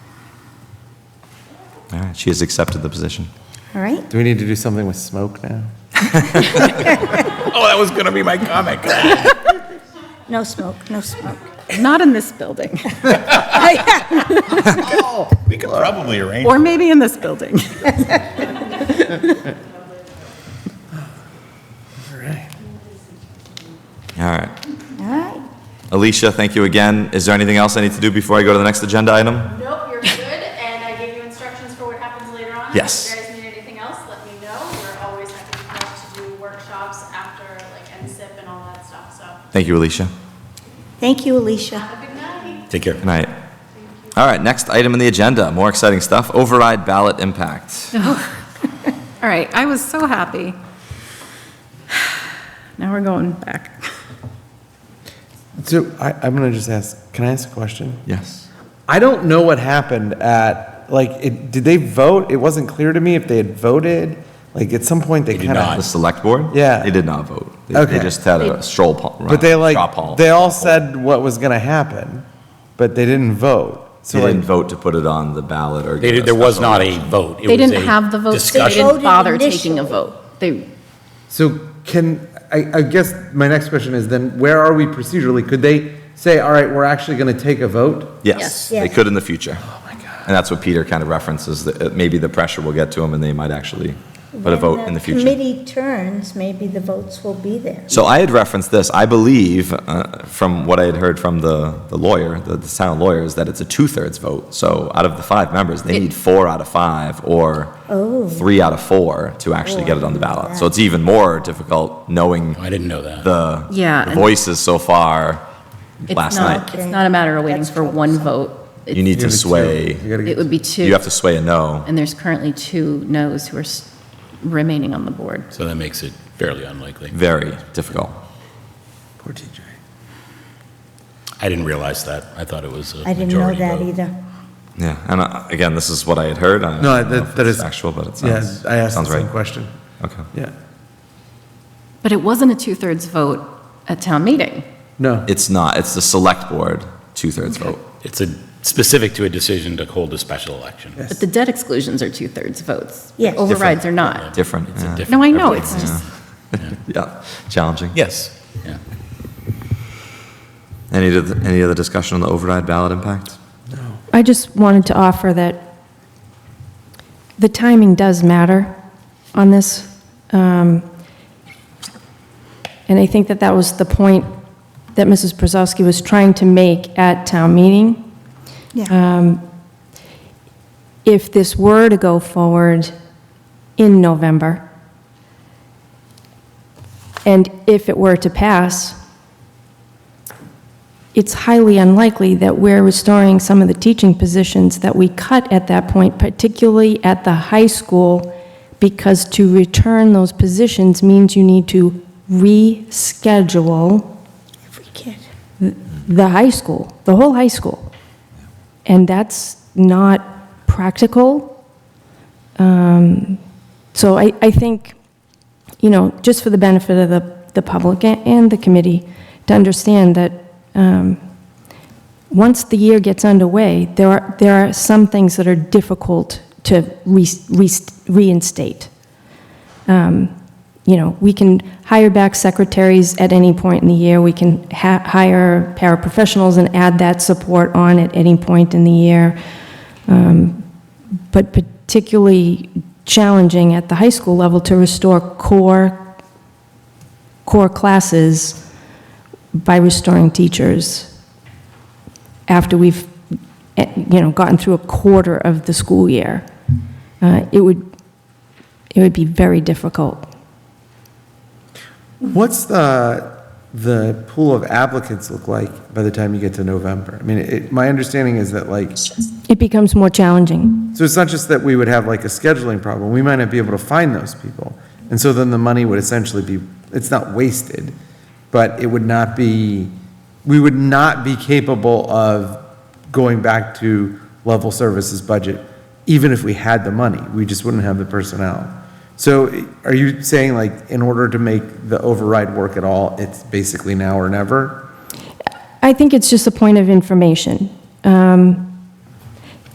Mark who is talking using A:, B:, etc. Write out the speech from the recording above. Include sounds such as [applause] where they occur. A: All right, she has accepted the position.
B: All right.
C: Do we need to do something with smoke now?
A: Oh, that was going to be my comment.
B: No smoke, no smoke.
D: Not in this building,
A: We could probably arrange.
D: or maybe in this building. [laughs]
A: All right.
B: All right.
A: Alicia, thank you again. Is there anything else I need to do before I go to the next agenda item?
E: Nope, you're good, and I gave you instructions for what happens later on.
A: Yes.
E: If you guys need anything else, let me know. We're always happy to help to do workshops after, like, NSIP and all that stuff, so
A: Thank you, Alicia.
B: Thank you, Alicia.
E: have a good night.
A: Take care. Good night. All right, next item on the agenda, more exciting stuff, override ballot
C: [laughs]
A: impact.
D: All right, I was so happy. [sighs] Now we're going back.
C: So I, I'm gonna just ask, can I ask a question?
A: Yes.
C: I don't know what happened at, like, it, did they vote? It wasn't clear to me if they had voted. Like, at some point, they kind
A: The
C: of.
A: select board?
C: Yeah.
A: They did not vote. They- They
C: Okay.
A: just had a stroll poll.
C: But they
A: straw
C: like,
A: poll.
C: they all said what was gonna happen, but they didn't vote. So
A: They didn't
C: like,
A: vote to put it on the ballot or.
F: They,
A: get a
F: there was
A: special
F: not
A: election.
F: a vote. It
G: They
F: was
G: didn't
F: a
G: have the vote, so they
F: discussion.
G: didn't
B: Voted
G: bother taking a
B: initially.
G: vote. They,
C: so can, I, I guess my next question is then, where are we procedurally? Could they say, all right, we're actually gonna take a vote?
A: Yes,
B: Yes.
A: they could in the future. Oh, my God. And that's what Peter kind of references, that uh, maybe the pressure will get to them and they might actually put a vote in the future.
B: When committee turns, maybe the votes will be there.
A: So I had referenced this. I believe, uh, from what I had heard from the, the lawyer, the, the town lawyer, is that it's a two thirds vote. So out of the five members, they need four out of five or
B: Oh.
A: three out of four to actually
B: Oh,
A: get it on the
B: I knew
A: ballot.
B: that.
A: So it's even more difficult knowing
F: I didn't know that.
A: the,
G: Yeah,
A: the
G: and-
A: voices so far
G: it's
A: last
G: not,
A: night.
G: it's not a matter of waiting
B: That's
G: for one vote.
A: You need to sway,
C: You gotta
G: It
C: get-
G: would be two.
A: you have to sway a no.
G: And there's currently two noes who are s- remaining on the board.
F: So that makes it fairly unlikely.
A: Very difficult.
C: Poor TJ.
F: I didn't realize that. I thought it was a
B: I didn't know
F: majority
B: that
F: vote.
B: either.
A: Yeah. And uh, again, this is what I had heard. I
C: No,
A: don't know
C: that,
A: if
C: that
A: it's
C: is.
A: Actual, but it
C: Yeah,
A: sounds.
C: I asked the
A: sounds
C: same
A: right.
C: question.
A: Okay.
C: Yeah.
G: But it wasn't a two-thirds vote at town meeting.
C: No.
A: It's not, it's the select board, two thirds vote.
F: It's a, specific to a decision to hold a special election.
G: But the debt exclusions are two-thirds votes. The
B: Yes.
G: Overrides are not.
A: Different.
F: It's
A: yeah.
F: a different.
G: No, I know, it's just,
A: [laughs] Yeah, challenging.
F: Yes. Yeah.
A: Any, other- any other discussion on the override ballot impact?
H: I just wanted to offer that the timing does matter on this. Um, And I think that that was the point that Mrs. Brzezowski was trying to make at town meeting. Um,
B: Yeah.
H: If this were to go forward in November, and if it were to pass, it's highly unlikely that we're restoring some of the teaching positions that we cut at that point, particularly at the high school, because to return those positions means you need to reschedule
B: Every kid.
H: the high school, the whole high school. And that's not practical. Um, So I, I think, you know, just for the benefit of the, the public a- and the committee, to understand that um, once the year gets underway, there are, there are some things that are difficult to re- re- reinstate you know, we can hire back secretaries at any point in the year, we can ha- hire paraprofessionals and add that support on at any point in the year. Um, But particularly challenging at the high school level to restore core, core classes by restoring teachers after we've, eh, you know, gotten through a quarter of the school year. Uh, It would, it would be very difficult.
C: What's the, the pool of applicants look like by the time you get to November? I mean, it, my understanding is that like, so
H: It becomes more challenging.
C: it's not just that we would have like a scheduling problem, we might not be able to find those people. And so then the money would essentially be, it's not wasted, but it would not be, we would not be capable of going back to level services budget, even if we had the money, we just wouldn't have the personnel. So are you saying like, in order to make the override work at all, it's basically now or never?
H: I think it's just a point of information. Um,